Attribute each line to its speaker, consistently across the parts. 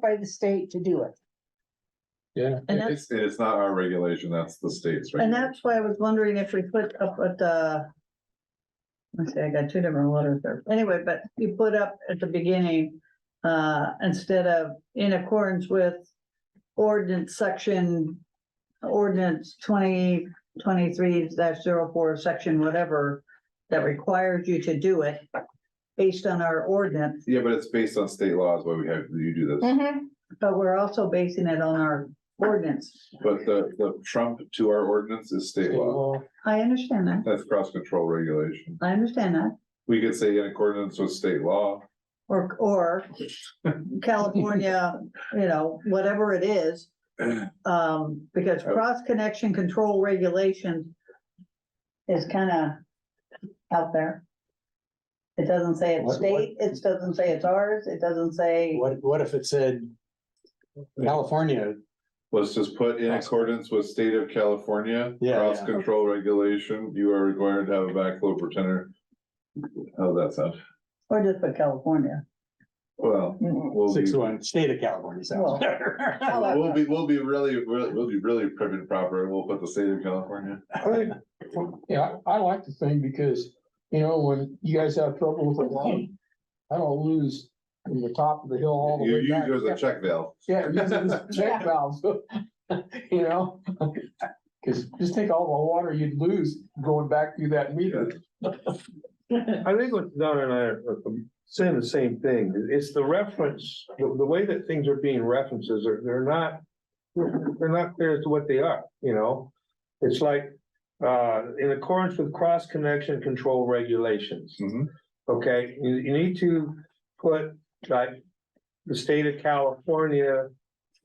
Speaker 1: by the state to do it.
Speaker 2: Yeah.
Speaker 1: And
Speaker 2: it-
Speaker 1: that's-
Speaker 3: It's, it's not our regulation, that's the state's.
Speaker 4: And
Speaker 3: regulation.
Speaker 4: that's why I was wondering if we put up at the. Let's see, I got two different letters there. Anyway, but you put up at the beginning, uh, instead of in accordance with ordinance section. Ordinance twenty twenty-three dash zero four, section whatever, that requires you to do it. Based on our ordinance,
Speaker 3: Yeah, but it's based on state laws, why we have, you do this.
Speaker 4: but we're also basing it on our ordinance.
Speaker 3: But the, the trump to our ordinance is state law.
Speaker 2: well,
Speaker 4: I understand that.
Speaker 3: That's cross control regulation.
Speaker 4: I understand that.
Speaker 3: We could say in accordance with state law.
Speaker 4: Or, or California, you know, whatever it is. Um, because
Speaker 2: Oh.
Speaker 4: cross connection control regulation is kind of out there. It doesn't say it's
Speaker 2: What- what-
Speaker 4: state, it doesn't say it's ours, it doesn't say,
Speaker 2: What, what if it said California,
Speaker 3: Let's just put in accordance with state of California.
Speaker 2: Yeah,
Speaker 3: Cross
Speaker 2: yeah.
Speaker 3: control regulation, you are required to have a backflow pretender. How's that sound?
Speaker 4: or just put California.
Speaker 3: Well, we'll
Speaker 2: six oh
Speaker 3: be,
Speaker 2: one, state of California sounds
Speaker 4: Well.
Speaker 2: better.
Speaker 3: we'll be, we'll be really, really, we'll be really prim and proper, we'll put the state of California.
Speaker 5: I think- Yeah, I I like the thing because, you know, when you guys have trouble with the line, I don't lose from the top of the hill all the
Speaker 3: You,
Speaker 5: way
Speaker 3: you,
Speaker 5: back.
Speaker 3: there's a check valve.
Speaker 5: Yeah, use it as check valves, you know? Cause just take all the water you'd lose going back through that meter.
Speaker 6: I think what Donna and I are saying the same thing, it's the reference, the, the way that things are being references, are they're not. They're not clear as to what they are, you know? It's like, uh, in accordance with cross connection control regulations.
Speaker 3: Mhm.
Speaker 6: Okay, you, you need to put like the state of California.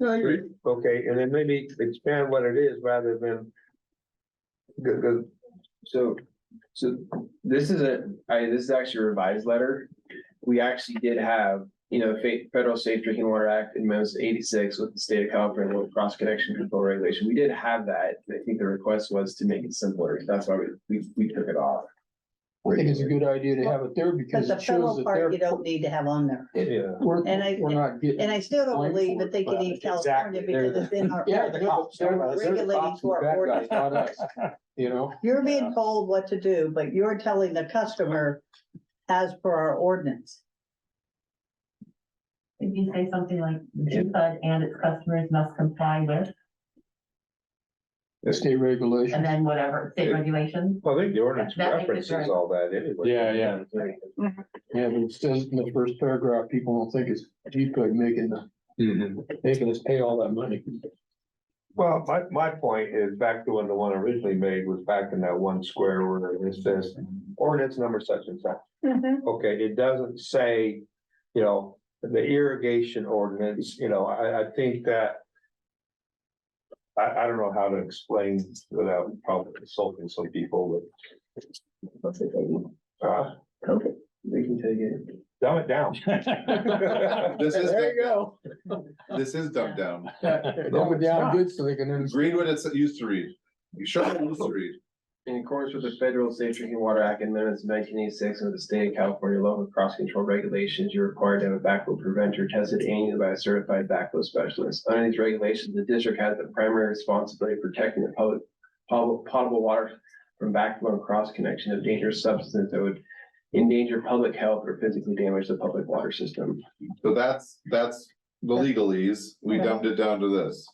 Speaker 6: Okay, and then maybe expand what it is rather than. Good, good,
Speaker 7: So, so this is a, I, this is actually a revised letter. We actually did have, you know, Fe- Federal Safe Drinking Water Act in most eighty-six with the state of California with cross connection control regulation. We did have that. I think the request was to make it simpler. That's why we, we, we took it off.
Speaker 5: I think it's a good idea to have it there
Speaker 4: But
Speaker 5: because
Speaker 4: the
Speaker 5: it shows
Speaker 4: federal
Speaker 5: that
Speaker 4: part
Speaker 5: they're.
Speaker 4: you don't need to have on there.
Speaker 6: yeah.
Speaker 5: We're,
Speaker 4: And I-
Speaker 5: we're not
Speaker 4: And
Speaker 5: getting.
Speaker 4: I still don't
Speaker 5: blamed
Speaker 4: believe
Speaker 5: for
Speaker 4: that
Speaker 5: it,
Speaker 4: they could
Speaker 5: but
Speaker 4: eat
Speaker 2: exactly,
Speaker 4: California
Speaker 2: they're
Speaker 4: because it's in our.
Speaker 5: Yeah, the cops, they're the- they're the
Speaker 4: regulating
Speaker 5: cops
Speaker 4: to
Speaker 5: and
Speaker 4: our
Speaker 5: bad guys,
Speaker 4: ordinance.
Speaker 5: not us, You know?
Speaker 4: You're being told what to do, but you're telling the customer as per our ordinance.
Speaker 8: If you say something like, G-Fud and its customers must comply with,
Speaker 5: State regulation.
Speaker 8: and then whatever, state regulations?
Speaker 6: Well, I think the ordinance
Speaker 8: That- that makes it very-
Speaker 6: references all that anyway.
Speaker 5: Yeah, yeah. Yeah, but it says in the first paragraph, people don't think it's G-Pug making the, making us pay all that money.
Speaker 6: Well, my, my point is back to when the one originally made was back in that one square order, and it says ordinance number such and such. Okay, it doesn't say, you know, the irrigation ordinance, you know, I, I think that. I, I don't know how to explain without probably insulting some people,
Speaker 7: That's it, baby.
Speaker 6: but, uh,
Speaker 7: Okay. We can take it.
Speaker 6: dumb it down.
Speaker 3: This is,
Speaker 5: There you go.
Speaker 3: dumbed- this is dumbed down.
Speaker 5: Dumb it down good so they can understand.
Speaker 3: Read what it used to read. You show them what it used to read.
Speaker 7: In accordance with the Federal Safe Drinking Water Act and amendments of nineteen eighty-six and with the state of California local cross control regulations, you're required to have a backflow preventer tested annually by a certified backflow specialist. Under these regulations, the district has the primary responsibility of protecting the public potable, potable water from backflow and cross connection of dangerous substances that would endanger public health or physically damage the public water system.
Speaker 3: So that's, that's the legalese. We dumbed it down to this.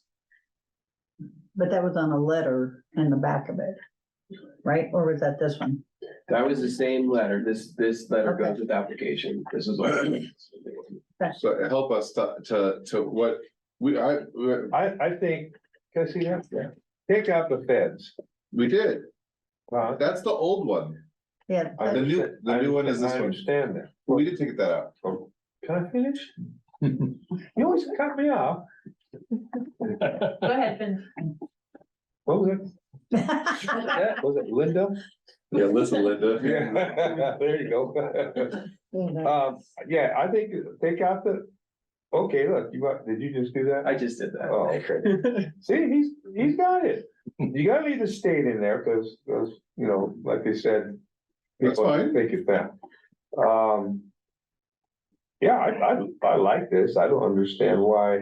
Speaker 4: But that was on a letter in the back of it, right? Or was that this one?
Speaker 7: That was the same letter. This, this letter
Speaker 4: Okay.
Speaker 7: goes with application. This is. all.
Speaker 3: So help us to, to, to what we, I, we-
Speaker 6: I, I think, can I see that? Yeah. Take out the feds.
Speaker 3: we did.
Speaker 6: Uh,
Speaker 3: That's the old one.
Speaker 4: Yeah.
Speaker 3: The
Speaker 6: I
Speaker 3: new-
Speaker 6: understand-
Speaker 3: the new one is this
Speaker 6: I
Speaker 3: one.
Speaker 6: Understand that.
Speaker 3: We did take that out.
Speaker 6: Can I finish? You always cut me off.
Speaker 8: Go ahead, finish.
Speaker 6: What was it? That- Was it Linda?
Speaker 3: Yeah, listen, Linda.
Speaker 6: Yeah, there you go. Um, yeah, I think, take out the, okay, look, you, got- did you just do that?
Speaker 7: I just did that.
Speaker 6: Oh, okay. See, he's, he's got it. You gotta leave the state in there, cause, 'cause, you know, like they said.
Speaker 3: That's
Speaker 6: people
Speaker 3: fine.
Speaker 6: Think it's that. Um. Yeah, I, I, I like this. I don't understand why